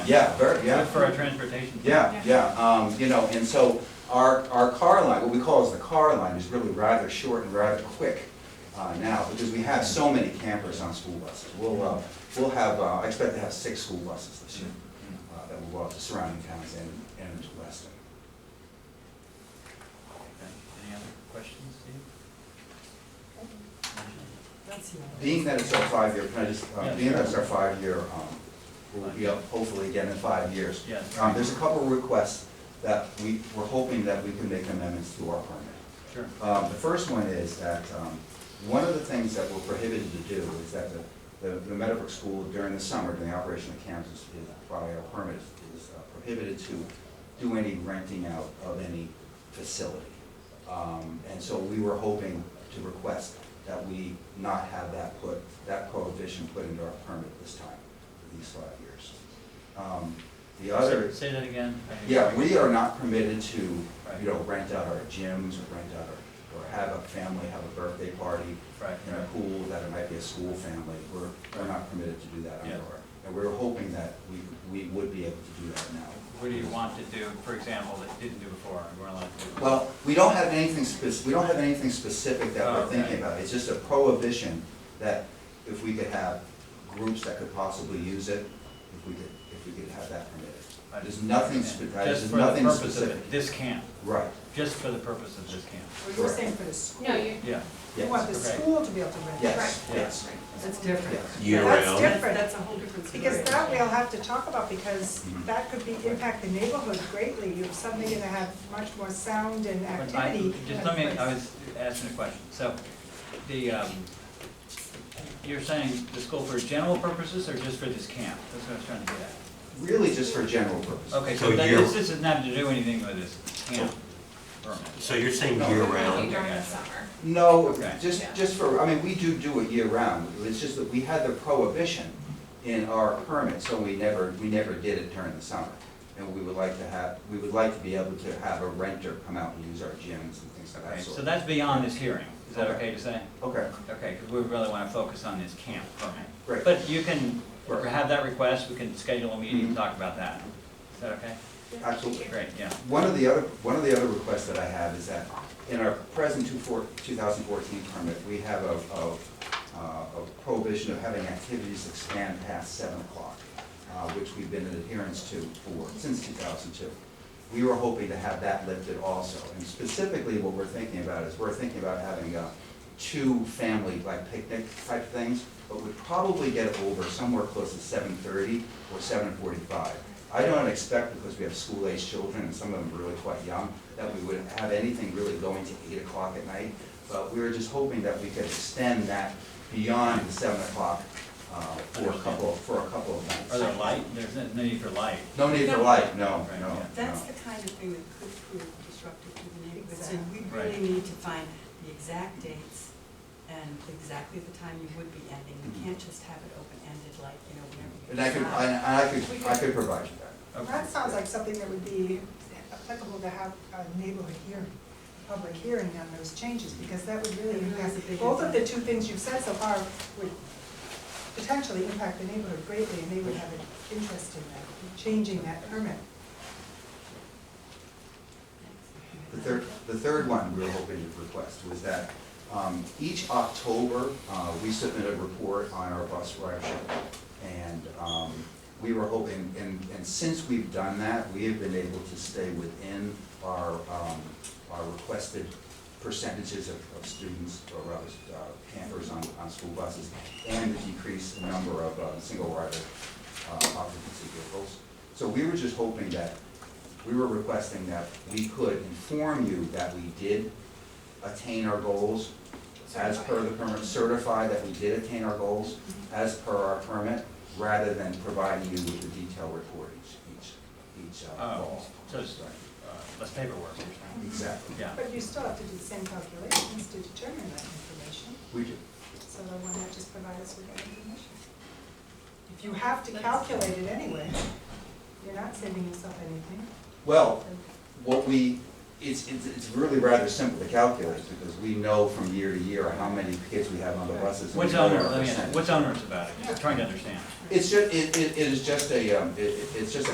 Yeah, very, yeah. Good for our transportation. Yeah, yeah, um, you know, and so our, our car line, what we call as the car line, is really rather short and rather quick uh, now, because we have so many campers on school buses. We'll, uh, we'll have, uh, I expect to have six school buses this year Mm-hmm. uh, that will go out to surrounding towns and, and to Weston. Okay. Any other questions, Steve? That's Being that it's our five-year, can I just, uh, Yeah, being that it's sure. our five-year, um, we'll be up hopefully again in five years. Yes. Um, There's a couple of requests that we, we're hoping that we can make amendments to our permit. Sure. Um, The first one is that, um, one of the things that we're prohibited to do is that the- the the Meadowbrook School during the summer, during the operation of camps, is is by our permit, is uh, prohibited to do any renting out of any facility. Um, And so we were hoping to request that we not have that put, that prohibition put into our permit this time, for these five years. Um, The other. Say say that again. I- Yeah, we are not permitted to, Right. you know, rent out our gyms or rent out our, or have a family, have a birthday party Right. in a pool that it might be a school family. We're, we're not permitted to do that Yeah. under our, and we we're hoping that we, we would be able to do that now. What do you want to do, for example, that you didn't do before, and we're allowed to do? Well, we don't have anything spec, we don't have anything specific that Oh, we're okay. thinking about. It's just a prohibition that if we could have groups that could possibly use it, if we could, if we could have that permitted. I just- There's nothing, spe- Just uh, there's for the nothing purpose of specific. it, this camp, Right, just for the purpose of this camp. Well, you were saying for the school. No, you, Yeah, You want the yes, Yes. school to be able to rent. yes, Right. yes. That's different. Yes. Year That's round. different. that's a whole different story. Because that we'll have to talk about, because Mhm. that could be, impact the neighborhood greatly. You're suddenly gonna have much more sound and But I- activity. Just let me, I was asking a question, so, the, um, you're saying the school for general purposes or just for this camp? That's what I was trying to get at. Really just for general purposes. Okay, so So that, you're- this this is not to do anything with this camp permit. So you're saying year round? During the summer. No, Okay. just, Yeah. just for, I mean, we do do it year round, it's just that we had the prohibition in our permit, so we never, we never did it during the summer. And we would like to have, we would like to be able to have a renter come out and use our gyms and things of Okay, that so sort. that's beyond this hearing, is that Okay. okay to say? Okay, Okay, because we really want to focus on this camp permit. Right. But you can Right. have that request, we can schedule a meeting Mhm. and talk about that. Is that okay? absolutely. Great, yeah. One of the other, one of the other requests that I have is that in our present two four, two thousand fourteen permit, we have a, a, uh, a prohibition of having activities expand past seven o'clock, uh, which we've been in adherence to for, since two thousand two. We were hoping to have that lifted also, and specifically what we're thinking about is, we're thinking about having, uh, two family, like picnic type things, but would probably get over somewhere close to seven thirty or seven forty-five. I don't expect, because we have school-aged children, and some of them are really quite young, that we would have anything really going to eight o'clock at night, but we were just hoping that we could extend that beyond the seven o'clock, uh, for a couple, for a couple of nights. Are there light? There's no no need for light. No need for light, no, Right, no, yeah. no. That's the kind of thing that could prove disruptive to the neighborhood, so we Right. really need to find the exact dates and exactly the time you would be ending. You can't just have it open-ended like, you know, whenever you. Mm-hmm. And I could, decide. I, I could, I could provide you that. Okay. That sounds like something that would be applicable to have a neighborhood hearing, public hearing on those changes, because that would really It really impact, is a big both of the impact. two things you've said so far would potentially impact the neighborhood greatly, and they would have an interest in that, changing that permit. The third, the third one we were hoping to request was that um, each October, uh, we submit a report on our bus ridership. And um, we were hoping, and, and since we've done that, we have been able to stay within our, um, our requested percentages of, of students or rather uh, campers on, on school buses and the decrease in number of uh, single rider uh, occupancy vehicles. So we were just hoping that we were requesting that we could inform you that we did attain our goals as per the permit, certify that we did attain our goals as per our permit, rather than providing you with the detailed report each, each, each uh, Oh, goal. so it's, uh, less paperwork, you're saying? Exactly. Yeah. But you still have to do the same calculations to determine that information, We do. so the one that just provides us with that information. If you have to calculate it anyway, you're not saving yourself anything. Well, what we, It's, it's, it's really rather simple to calculate, because we know from year to year how many kids we have on the buses. and What's we know our onerous, let me ask, percentage. what's onerous about it? Just trying to understand. It's ju, it, it it is just a, um, it, it- it's just a